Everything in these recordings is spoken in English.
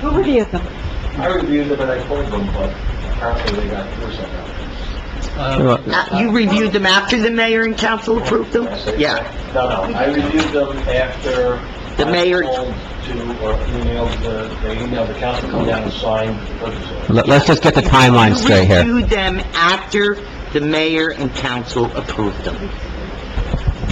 Who reviewed them? I reviewed them and I told them, but apparently they got through somehow. Uh, You reviewed them after the mayor and council approved them? Can I say that? Yeah. No, no, I reviewed them after. The mayor- I told To, or emailed the, they emailed the council, come down and sign the purchase order. Let- Let's just get the timeline straight You here. reviewed them after the mayor and council approved them.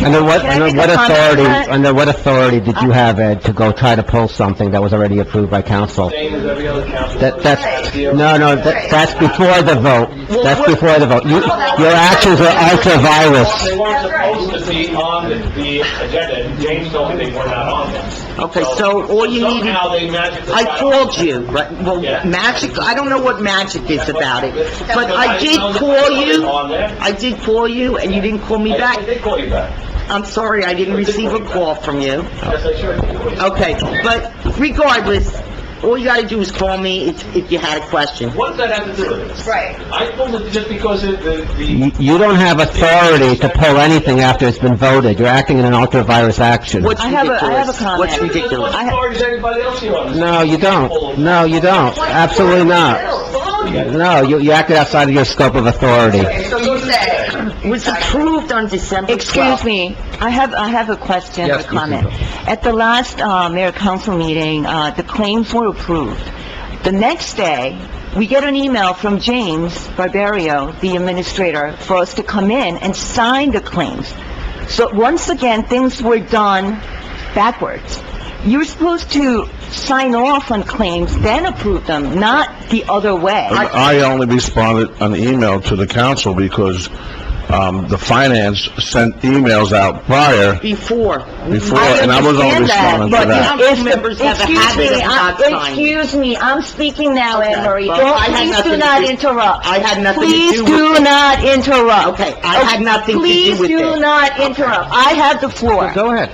Under what, Can I under make a what comment? authority, Uh, under what authority did you have, Ed, to go try to pull something that was already approved by council? Same as every other council. That, that's, That's the- no, no, that- that's before the vote. That's before the vote. You, your actions are They ultra-virus. weren't supposed to be on the, the agenda, and James told me they were not on them. Okay, so all you needed- Somehow they magically. I got on. called you, right, well, Yeah. magic, I don't know what magic is about it, but I did Because call I didn't know they were you, on there. I did call you, and you didn't call me I- I back. did call you back. I'm sorry, I didn't receive a call from you. Yes, I sure did. Okay, but regardless, all you gotta do is call me if, if you had a question. What does that have to do with this? Right. I pulled it just because it, the, You the, you don't have authority to pull anything after it's been voted. You're acting in an ultra-virus action. What's I have a- I ridiculous? have a comment. What's ridiculous? What authority does anybody else here on this? No, you don't. No, you don't. Absolutely not. No, you, you acted outside of your scope of authority. It was approved on December 12th. Excuse me, I have, I have a question, a Yes, Ms. comment. At the last, uh, mayor council meeting, uh, the claims were approved. The next day, we get an email from James Barbario, the administrator, for us to come in and sign the claims. So once again, things were done backwards. You're supposed to sign off on claims, then approve them, not the other way. I only responded an email to the council because, um, the finance sent emails out prior Before. before, and I was only understand responding to but that. Council members have a Excuse habit of me, not I- signing. Excuse me, I'm speaking now, Anne Marie. well, Don't- I had Please nothing do to not do- interrupt. I had nothing to do Please with do it. not interrupt. Okay, I had nothing to do with Please do it. not interrupt. I have the floor. Go ahead.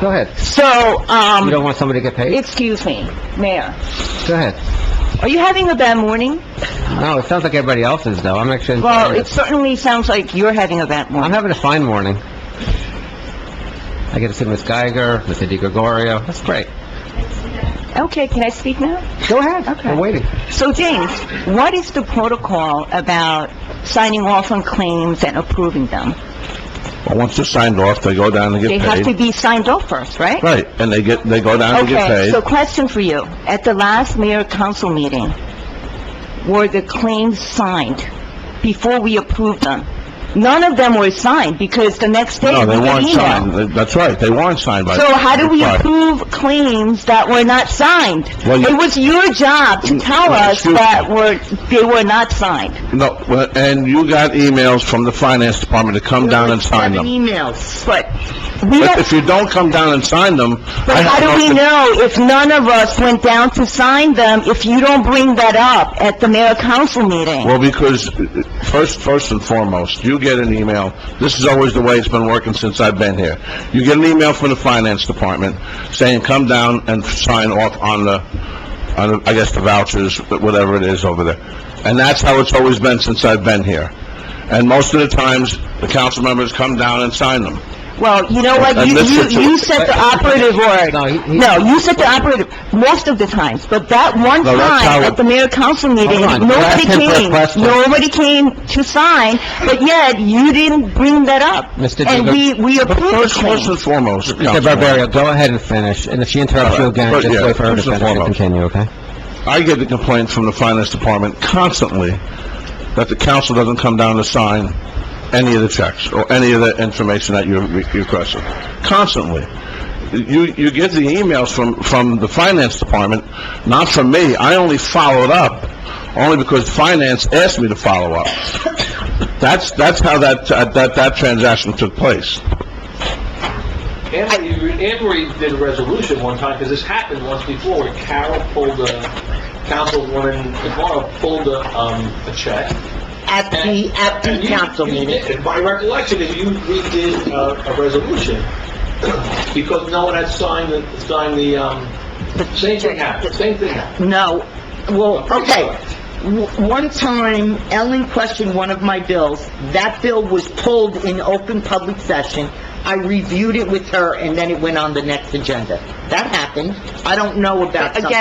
Go ahead. So, You um, don't want somebody to get paid? excuse me, Mayor, Go ahead. are you having a bad morning? No, it sounds like everybody else is, though. I'm actually... Well, it certainly sounds like you're having a bad Uh-huh. I'm morning. having a fine morning. I get to see Miss Geiger, Mr. DiGregorio. That's great. Okay, can I speak now? Go ahead. Okay. I'm waiting. So James, what is the protocol about signing off on claims and approving them? But once they're signed off, they go down and They get have to paid. be signed off first, right? Right, and they get, they go down and get Okay, paid. so question for you. At the last mayor council meeting, were the claims signed before we approved them? None of them were signed because the next day No, we they got weren't signed. email. They- That's right, they weren't signed by... So how do we by- approve claims that were not signed? Well, you- Mm, It was your job to tell Well, us excuse that were, they were not signed. No, well, and you got emails from the finance department to come down and sign Seven them. emails. But we If don't, if you don't come down and sign them... I but have how do we nothing- know if none of us went down to sign them if you don't bring that up at the mayor council meeting? Well, because, uh, first, first and foremost, you get an email, this is always the way it's been working since I've been here. You get an email from the finance department saying, "Come down and sign off on the, on, the- I guess, the vouchers, whatever it is over there." And that's how it's always been since I've been here. And most of the times, the council members come down and sign them. Well, you know what, And you, this you, situa- you said the operative word. No, he- he- No, you said the operative, most of the times, but that one No, that's time how- at the mayor council meeting, Hold on, you nobody asked him for a came, question. nobody came to sign, but yet you didn't bring that up. Mr. And Jacob- we, we But approved first, the first claim. and foremost, Mr. Councilman, Barbario, go ahead and finish, and if she interrupts you again, But, just yeah, wait for her to first and finish and foremost. continue, okay? I get the complaint from the finance department constantly that the council doesn't come down to sign any of the checks or any of the information that you re- requested. Constantly. You, you get the emails from, from the finance department, not from me. I only followed up, only because finance asked me to follow up. That's, that's how that, that, that transaction took place. Anne Marie- Anne Marie did a resolution one time, because this happened once before, where Carol pulled a, councilwoman DeMorro pulled a, um, a check. At the, at the And you- council you meeting. did- My recollection is you redid uh, a, a resolution, because no one had signed the, signed the, um, same thing happened, same thing happened. No, well, I'm okay. sorry. W- One time, Ellen questioned one of my bills. That bill was pulled in open public session. I reviewed it with her, and then it went on the next agenda. That happened. I don't know about something. Again,